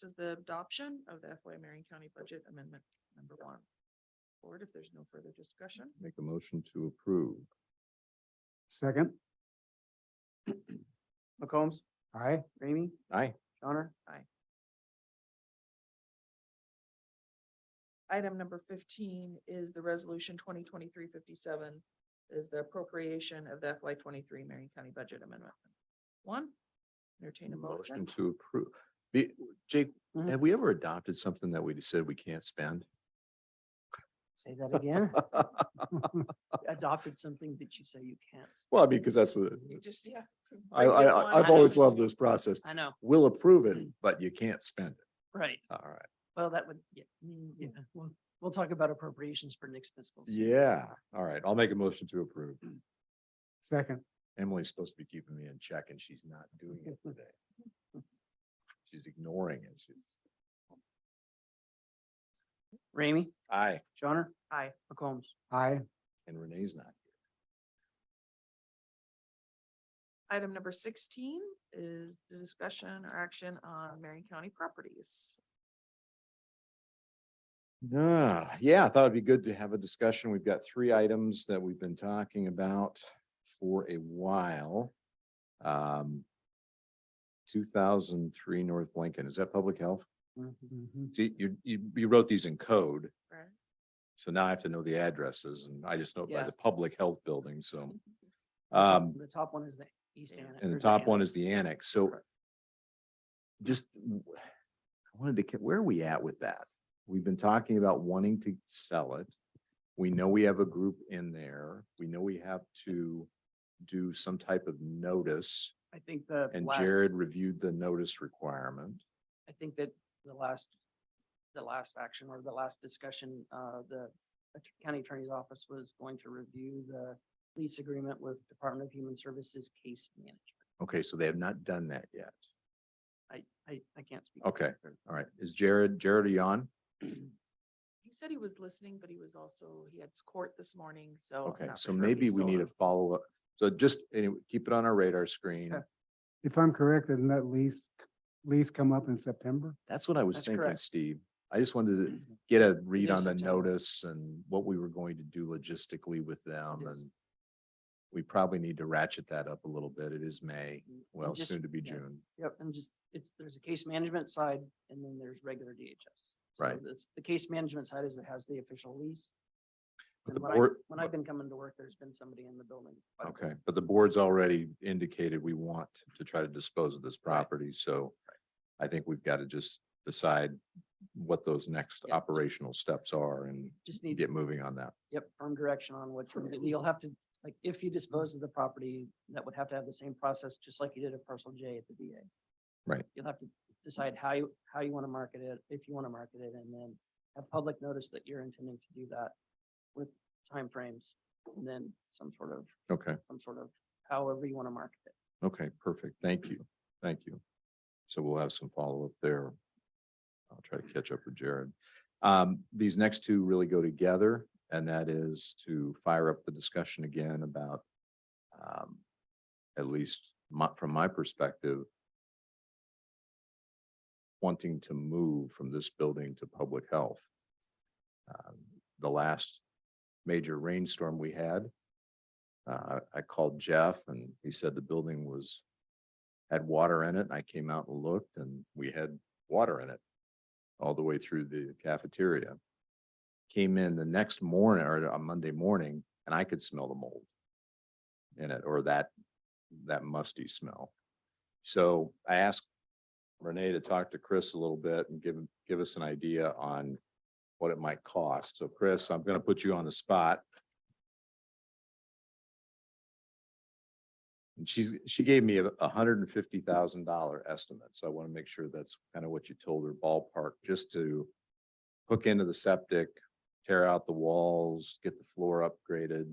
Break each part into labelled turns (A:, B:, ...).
A: This is the adoption of the FY Marion County Budget Amendment Number One. Board, if there's no further discussion,
B: Make a motion to approve.
C: Second.
D: McCombs,
C: Aye.
D: Ramey,
B: Aye.
D: Johnner,
A: Item number fifteen is the resolution 2023-57 is the appropriation of the FY twenty-three Marion County Budget Amendment. One, entertain a
B: Motion
A: motion.
B: to approve. Be- Jake,
D: Mhm.
B: have we ever adopted something that we said we can't spend?
D: say that again. Adopted something that you say you can't.
B: Well, I mean, because that's what,
A: You just, yeah.
B: I,
A: break
B: I,
A: this
B: I-
A: one
B: I've
A: out.
B: always loved this process.
D: I know,
B: We'll approve it, but you can't spend it.
D: right.
B: All right.
D: Well, that would, yeah, mm, yeah, we'll, we'll talk about appropriations for next fiscal. season.
B: Yeah, all right. I'll make a motion to approve.
C: Second.
B: Emily's supposed to be keeping me in check and she's not doing it today. She's ignoring it. She's,
D: Ramey,
B: aye,
D: Johnner,
A: Aye.
D: McCombs,
C: Aye.
B: and Renee's not.
A: Item number sixteen is the discussion or action on Marion County properties.
B: Yeah, yeah, I thought it'd be good to have a discussion. We've got three items that we've been talking about for a while. Um. Two thousand three North Lincoln, is that public health?
C: Mm-hmm,
B: See, you, you, you wrote these in code,
A: Right.
B: so now I have to know the addresses and I just know it by
D: Yeah. Mm-hmm.
B: the public health building, so. Um,
D: the top one is the East Annex.
B: and the
D: or
B: top one
D: Annex.
B: is the annex, so.
D: Correct.
B: Just, w- I wanted to, ca- where are we at with that? We've been talking about wanting to sell it. We know we have a group in there. We know we have to do some type of notice.
D: I think the
B: And
D: last,
B: Jared reviewed the notice requirement.
D: I think that the last, the last action or the last discussion, uh, the att- county attorney's office was going to review the lease agreement with Department of Human Services case management.
B: Okay, so they have not done that yet.
D: I, I, I can't speak.
B: Okay, all right. Is Jared, Jared, are you on?
A: He said he was listening, but he was also, he had court this morning, so. I'm
B: Okay,
A: Oh, not
B: so
A: for sure if
B: maybe
A: he's
B: we
A: still
B: need
A: on.
B: a follow-up. So just, anyway, keep it on our radar screen.
D: Okay.
C: If I'm correct, didn't that lease, lease come up in September?
B: That's what I was
D: That's
B: thinking,
D: correct. Mm-hmm.
B: Steve. I just wanted to get a read
D: is
B: on the
D: September.
B: notice and what we were going to do logistically with them
D: Yes.
B: and we probably need to ratchet that up a little bit. It is May,
D: And- and
B: well,
D: just-
B: soon to be
D: yeah.
B: June.
D: Yep, and just, it's, there's a case management side and then there's regular DHS. So
B: Right.
D: this- The case management side is it has the official lease.
B: But
D: And
B: the
D: when I,
B: board,
D: when I've been coming to work, there's been somebody in the building. by the
B: okay,
D: building.
B: but the board's already indicated we want to try to dispose of this
D: Right.
B: property, so I think we've got to just decide what those next
D: Yeah.
B: operational steps are and
D: Just need,
B: get moving on that.
D: yep, firm direction on what you're, gonna do. you'll have to, like, if you dispose of the property, that would have to have the same process, just like you did at parcel J at the VA.
B: Right.
D: You'll have to decide how you, how you want to market it, if you want to market it, and then have public notice that you're intending to do that with timeframes and then some sort of
B: Okay.
D: some sort of, however you want to market it.
B: Okay, perfect. Thank you. Thank you. So we'll have some follow-up there. I'll try to catch up with Jared. Um, these next two really go together, and that is to fire up the discussion again about um, at least my, from my perspective, wanting to move from this building to public health. Um, The last major rainstorm we had, uh, I called Jeff and he said the building was, had water in it. and I came out and looked and we had water in it all the way through the cafeteria. Came in the next morning or on Monday morning and I could smell the mold in it or that, that musty smell. So I asked Renee to talk to Chris a little bit and give, him- give us an idea on what it might cost. So Chris, I'm going to put you on the spot. And she's, she gave me a hundred and fifty thousand dollar estimate, so I want to make sure that's kind of what you told her ballpark, just to hook into the septic, tear out the walls, get the floor upgraded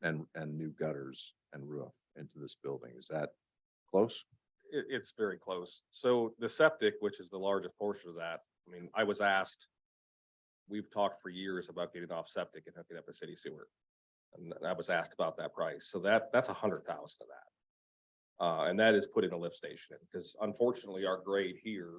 B: and, and new gutters and roof into this building. Is that close?
E: it, it's very close. So the septic, which is the largest portion of that, I mean, I was asked, we've talked for years about getting off septic and hooking up a city sewer. And I was asked about that price. So that, that's a hundred thousand of that. Uh, and that is put in a lift station because unfortunately our grade here